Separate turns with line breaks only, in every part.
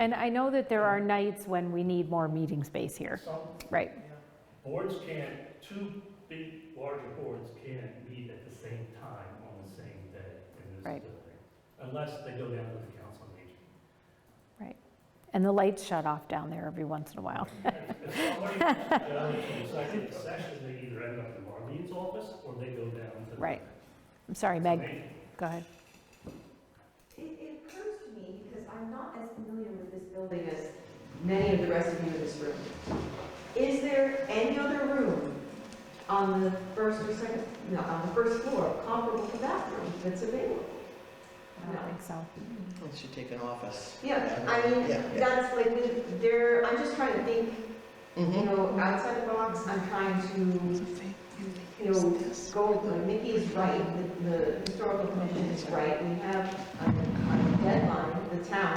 And I know that there are nights when we need more meeting space here.
Some
Right,
boards can't, two big, larger boards can't meet at the same time on the same day in this
Right.
building. Unless they go down to the council meeting.
right. And the lights shut off down there every once in a while.
If somebody goes down to the second session, they either end up in Marlene's office or they go down to. the-
Right. I'm sorry, Meg, go ahead.
It, it occurs to me, because I'm not as familiar with this building as many of the rest of you in this room. Is there any other room on the first or second, no, on the first floor comparable to that room that's available?
I don't think so.
Well, She take an office.
Yeah, I mean,
Yeah, yeah.
that's like, with- there, I'm just trying to think, you
Mhm.
know, outside the box, I'm trying to, you know, go, like Mickey's right, the, the historical commission is right, we have a a deadline, the town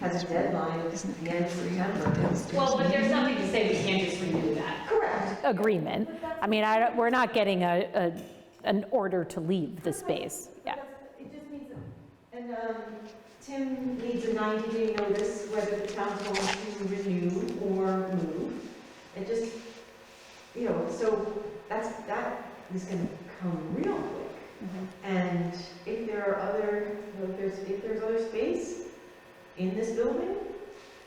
has a deadline, it's the end of September.
Well, but there's nothing to say we can't just renew that.
Correct.
Agreement. I mean, I, don't- we're not getting a, a, an order to leave the space, yeah.
It just means, and, um, Tim needs a ninety-day notice whether the town's going to renew or move. It just, you know, so that's, that is gonna come real quick.
Mm-hmm.
And if there are other, you know, if there's, if there's other space in this building,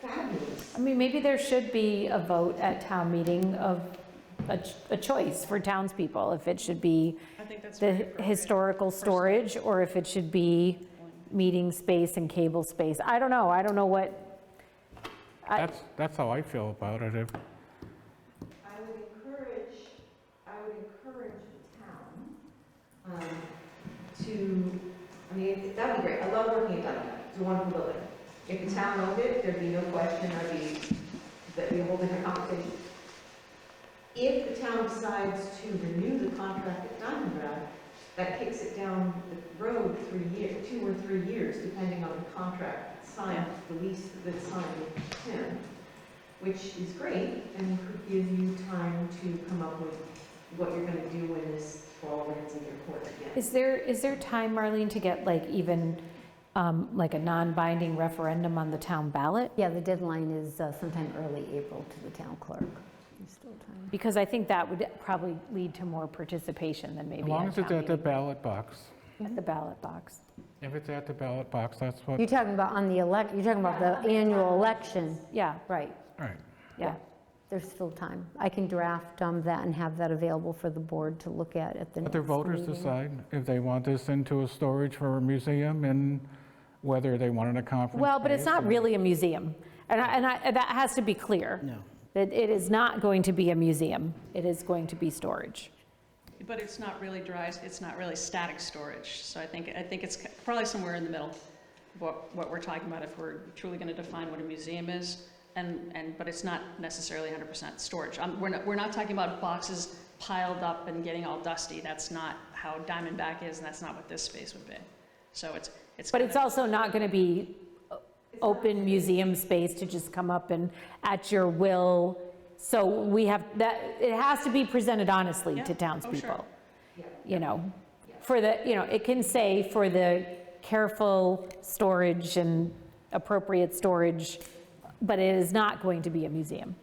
fabulous.
I mean, maybe there should be a vote at town meeting of a, ch- a choice for townspeople, if it should be
I think that's
the
very appropriate.
historical storage, or if it should be meeting space and cable space. I don't know, I don't know what, I-
That's, that's how I feel about it. If-
I would encourage, I would encourage the town um, to, I mean, that'd be great, I love working at Dunkin', it's a wonderful building. If the town owned it, there'd be no question, I'd be, that'd be a whole different conversation. If the town decides to renew the contract at Diamond Brown, that kicks it down the road three years, two or three years, depending on the contract that's signed, the lease that's signed with him, which is great, and could give you time to come up with what you're gonna do when this ball lands in your court again.
is there, is there time, Marlene, to get like even, um, like a non-binding referendum on the town ballot?
Yeah, the deadline is uh, sometime early April to the town clerk. There's still time.
Because I think that would probably lead to more participation than maybe
As long
at
as it's
town
at the
meeting.
ballot box.
At the ballot box.
If it's at the ballot box, that's what,
You're talking about on the elec, you're talking about the annual election,
Yeah,
right,
right.
yeah.
there's still time. I can draft um, that and have that available for the board to look at at the
Let
next
the voters
meeting.
decide if they want this into a storage for a museum and whether they want it a conference.
Well, but it's
space
not
or-
really a museum. And I, and I, that has to be clear.
No.
That it is not going to be a museum. It is going to be storage.
But it's not really dry, it's not really static storage, so I think, I think it's probably somewhere in the middle, what, what we're talking about, if we're truly gonna define what a museum is, and, and, but it's not necessarily hundred percent storage. Um, we're not, we're not talking about boxes piled up and getting all dusty, that's not how Diamondback is, and that's not what this space would be. So it's, it's.
But
kind
it's
of-
also not going to be o- open museum space to just come up and at your will. So we have, that, it has to be presented honestly
Yeah.
to
Oh, sure.
townspeople.
Yeah.
You know, for the, you know, it can say for the careful storage and appropriate storage, but it is not going to be a museum.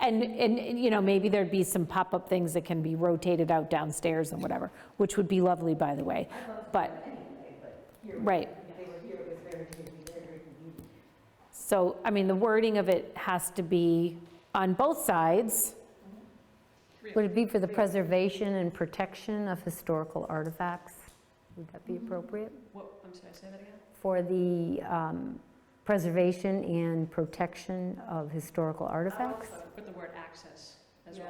And, and, you know, maybe there'd be some pop-up things that can be rotated out downstairs and whatever, which would be lovely, by the way, but. Right. So, I mean, the wording of it has to be on both sides.
Would it be for the preservation and protection of historical artifacts? Would that be appropriate?
What, I'm sorry, say that again?
For the um, preservation and protection of historical artifacts?
Put the word access as well.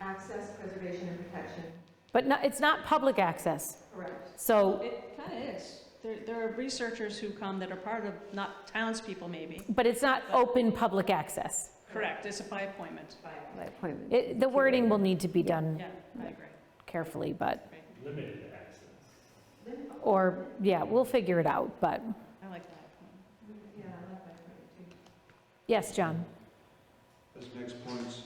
Access, preservation, and protection,
But no, it's not public access,
correct.
so,
It kind of is. There, there are researchers who come that are part of, not townspeople maybe.
but it's not open public access.
Correct, it's by appointment.
By appointment.
It- The wording will need to be done
Yeah, I agree.
carefully, but,
Limited access.
or, yeah, we'll figure it out, but,
I like that appointment.
Yeah, I like that.
yes, John?
As next points,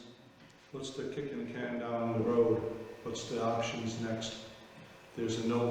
what's the kicking the can down the road? What's the options next? There's a no